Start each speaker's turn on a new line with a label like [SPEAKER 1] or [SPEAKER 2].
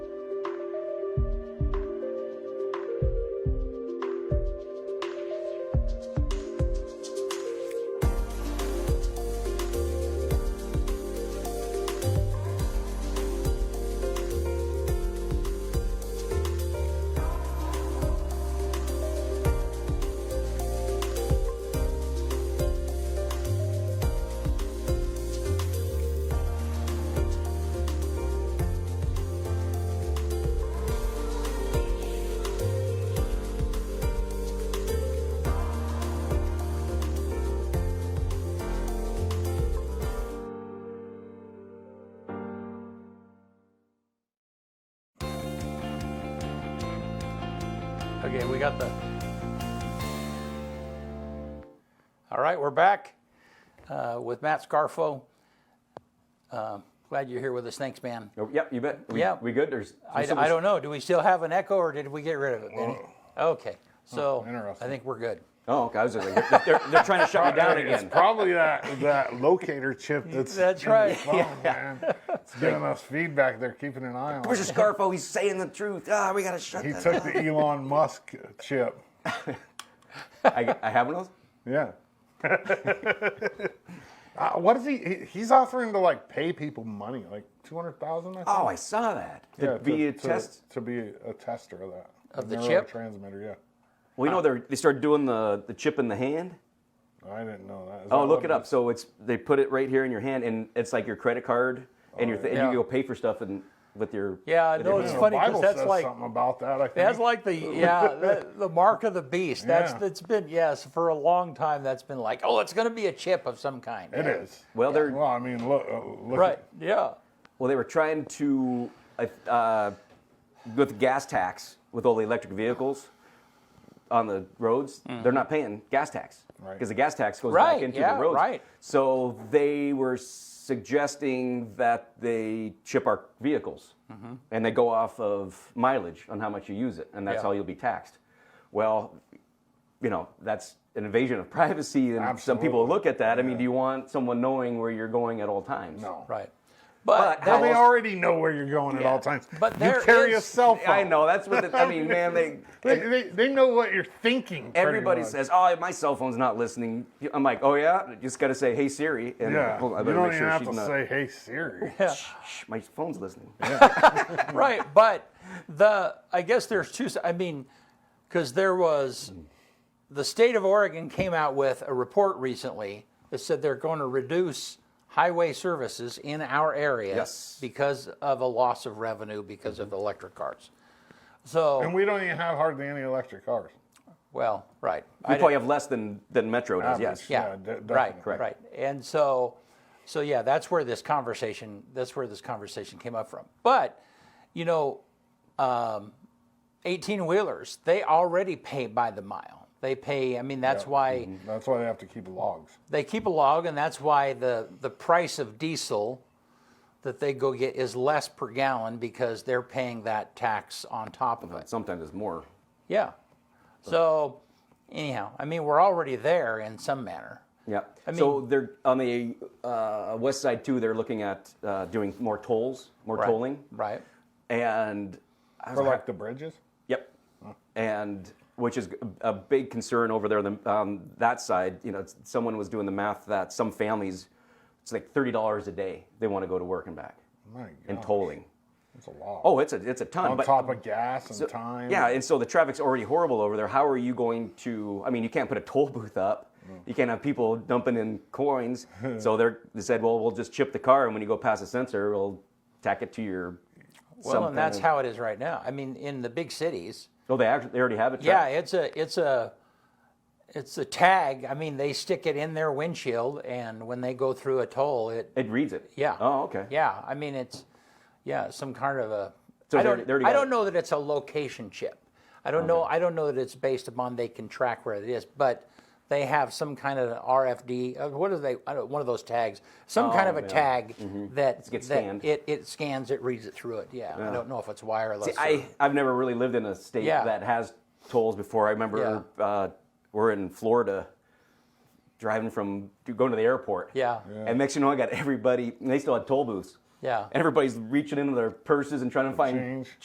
[SPEAKER 1] Okay, we got the. All right, we're back uh, with Matt Scarfo. Uh, glad you're here with us. Thanks, man.
[SPEAKER 2] Oh, yep, you bet. We,
[SPEAKER 1] Yeah.
[SPEAKER 2] we good? There's
[SPEAKER 1] I, I don't know. Do we still have an echo, or did we get rid of it? Benny? Okay, so I
[SPEAKER 3] Oh. interesting.
[SPEAKER 1] think we're good.
[SPEAKER 2] Oh, okay. I was just like, they're- they're, they're trying to shut me down
[SPEAKER 3] It's
[SPEAKER 2] again.
[SPEAKER 3] probably that, that locator chip that's
[SPEAKER 1] That's
[SPEAKER 3] in the
[SPEAKER 1] right.
[SPEAKER 3] phone, man. It's giving us feedback. They're keeping an eye on.
[SPEAKER 2] Where's
[SPEAKER 3] it.
[SPEAKER 2] the Scarfo? He's saying the truth. Ah, we gotta shut.
[SPEAKER 3] He took the Elon Musk chip.
[SPEAKER 2] I, I have one of those.
[SPEAKER 3] Yeah. uh, what is he, he? He's offering to like pay people money, like two hundred thousand.
[SPEAKER 2] Oh, I saw that. To
[SPEAKER 3] yeah,
[SPEAKER 2] be a test.
[SPEAKER 3] to be a tester of that
[SPEAKER 1] Of the chip?
[SPEAKER 3] transmitter. Yeah,
[SPEAKER 2] Well, you know they they started doing the the chip in the hand.
[SPEAKER 3] I didn't know that. Is
[SPEAKER 2] Oh,
[SPEAKER 3] that
[SPEAKER 2] look
[SPEAKER 3] what
[SPEAKER 2] it up. So it's they put it right here in your hand, and it's like your credit card, and
[SPEAKER 3] Oh,
[SPEAKER 2] your th- and
[SPEAKER 1] Yeah.
[SPEAKER 2] you go pay for stuff and with your
[SPEAKER 1] Yeah, I
[SPEAKER 2] with
[SPEAKER 1] know
[SPEAKER 2] your
[SPEAKER 3] is?
[SPEAKER 1] It's
[SPEAKER 3] Yeah,
[SPEAKER 2] hand.
[SPEAKER 1] funny
[SPEAKER 3] the
[SPEAKER 1] 'cause
[SPEAKER 3] Bible
[SPEAKER 1] that's
[SPEAKER 3] says
[SPEAKER 1] like-
[SPEAKER 3] something about that. I think
[SPEAKER 1] That's like the yeah the, the mark of the beast. That's
[SPEAKER 3] Yeah.
[SPEAKER 1] that's been yes for a long time. That's been like oh it's going to be a chip of some kind.
[SPEAKER 3] it is.
[SPEAKER 2] Well, they're
[SPEAKER 3] Well, I mean, look, uh, look
[SPEAKER 1] Right.
[SPEAKER 3] at-
[SPEAKER 1] Yeah.
[SPEAKER 2] well they were trying to uh, uh, with the gas tax with all the electric vehicles on the roads. They're not paying gas tax because
[SPEAKER 3] Right.
[SPEAKER 2] the gas tax goes
[SPEAKER 1] Mm. Right,
[SPEAKER 2] back into
[SPEAKER 1] yeah,
[SPEAKER 2] the roads.
[SPEAKER 1] right.
[SPEAKER 2] So they were suggesting that they chip our vehicles
[SPEAKER 1] Mm-hmm.
[SPEAKER 2] and they go off of mileage on how much you use it, and that's
[SPEAKER 1] Yeah.
[SPEAKER 2] how you'll be taxed. Well, you know, that's an invasion of privacy, and some people
[SPEAKER 3] Absolutely.
[SPEAKER 2] look at that. I mean, do you want someone knowing where you're going at all times?
[SPEAKER 3] no.
[SPEAKER 1] Right. But,
[SPEAKER 2] But
[SPEAKER 1] that
[SPEAKER 2] how
[SPEAKER 3] They
[SPEAKER 1] was-
[SPEAKER 3] already know where you're going at
[SPEAKER 2] Yeah.
[SPEAKER 3] all times.
[SPEAKER 1] But
[SPEAKER 3] you
[SPEAKER 1] there
[SPEAKER 3] carry a
[SPEAKER 1] is-
[SPEAKER 3] cell phone.
[SPEAKER 2] I know that's what the, I mean, man. They,
[SPEAKER 3] They, they, they know what you're thinking. pretty
[SPEAKER 2] everybody
[SPEAKER 3] much.
[SPEAKER 2] says, "Oh, my cell phone's not listening." I'm like, "Oh yeah," You just gotta say, "Hey Siri," and
[SPEAKER 3] Yeah.
[SPEAKER 2] hold on, I
[SPEAKER 3] you
[SPEAKER 2] better
[SPEAKER 3] don't
[SPEAKER 2] make
[SPEAKER 3] even
[SPEAKER 2] sure
[SPEAKER 3] have
[SPEAKER 2] she's
[SPEAKER 3] to
[SPEAKER 2] not.
[SPEAKER 3] say, "Hey Siri."
[SPEAKER 1] yeah.
[SPEAKER 2] Shh, my phone's listening.
[SPEAKER 1] right but the i guess there's two i mean because there was the state of oregon came out with a report recently that said they're going to reduce highway services in our area
[SPEAKER 2] Yes.
[SPEAKER 1] because of a loss of revenue because of the electric cars so
[SPEAKER 3] And we don't even have hardly any electric cars.
[SPEAKER 1] well right
[SPEAKER 2] We
[SPEAKER 1] I
[SPEAKER 2] probably have less than than Metro does.
[SPEAKER 3] Average.
[SPEAKER 2] Yes.
[SPEAKER 1] yeah,
[SPEAKER 3] Yeah, de-
[SPEAKER 1] right,
[SPEAKER 3] definitely.
[SPEAKER 2] Correct.
[SPEAKER 1] right. And so, so yeah, that's where this conversation that's where this conversation came up from. But you know, um, eighteen wheelers they already pay by the mile. They pay. I mean, that's why
[SPEAKER 3] That's why they have to keep logs.
[SPEAKER 1] they keep a log, and that's why the the price of diesel that they go get is less per gallon because they're paying that tax on top of it.
[SPEAKER 2] But sometimes it's more.
[SPEAKER 1] Yeah. So, anyhow, I mean, we're already there in some manner.
[SPEAKER 2] Yeah. so they're on the uh, west side too. They're looking at uh, doing more tolls, more
[SPEAKER 1] Right,
[SPEAKER 2] tolling,
[SPEAKER 1] Right.
[SPEAKER 2] and I was
[SPEAKER 3] For like the bridges?
[SPEAKER 2] Yep. And which is a a big concern over there on, the, on that side. You know, it's- someone was doing the math that some families, it's like thirty dollars a day they want to go to work and back
[SPEAKER 3] My God.
[SPEAKER 2] in tolling.
[SPEAKER 3] It's a log.
[SPEAKER 2] Oh, it's a it's a ton.
[SPEAKER 3] on
[SPEAKER 2] but
[SPEAKER 3] top of gas and time.
[SPEAKER 2] yeah, and so the traffic's already horrible over there. How are you going to? I mean, you can't put a toll booth up.
[SPEAKER 1] Mm.
[SPEAKER 2] You can't have people dumping in coins. so they're, they said, well, we'll just chip the car, and when you go past the sensor, we'll tack it to your.
[SPEAKER 1] Well, and that's how it is right now. I mean, in the big cities,
[SPEAKER 2] Oh, they actually they already have it.
[SPEAKER 1] yeah, it's a it's a it's a tag. I mean, they stick it in their windshield, and when they go through a toll, it
[SPEAKER 2] It reads it.
[SPEAKER 1] yeah.
[SPEAKER 2] Oh, okay.
[SPEAKER 1] Yeah, I mean it's yeah some kind of a.
[SPEAKER 2] So
[SPEAKER 1] I
[SPEAKER 2] they
[SPEAKER 1] don't
[SPEAKER 2] already- they already
[SPEAKER 1] I
[SPEAKER 2] got
[SPEAKER 1] don't
[SPEAKER 2] it.
[SPEAKER 1] know that it's a location chip. I don't know I don't know that it's based upon they can track where it is, but they have some kind of RFD. uh, What are they? I don't, one of those tags, some kind
[SPEAKER 2] Oh,
[SPEAKER 1] of a
[SPEAKER 2] yeah. Mm-hmm.
[SPEAKER 1] tag that,
[SPEAKER 2] gets
[SPEAKER 1] that
[SPEAKER 2] scanned.
[SPEAKER 1] it it scans, it reads it through it. Yeah, I don't know if it's wireless.
[SPEAKER 2] See,
[SPEAKER 1] or-
[SPEAKER 2] I, I've never really lived in a state
[SPEAKER 1] Yeah.
[SPEAKER 2] that has tolls before. I remember uh, we're in Florida driving from going to the airport.
[SPEAKER 1] Yeah.
[SPEAKER 2] And next thing you know, I got everybody, and they still had toll booths.
[SPEAKER 1] Yeah.
[SPEAKER 2] And everybody's reaching into their purses and trying to find
[SPEAKER 3] Change.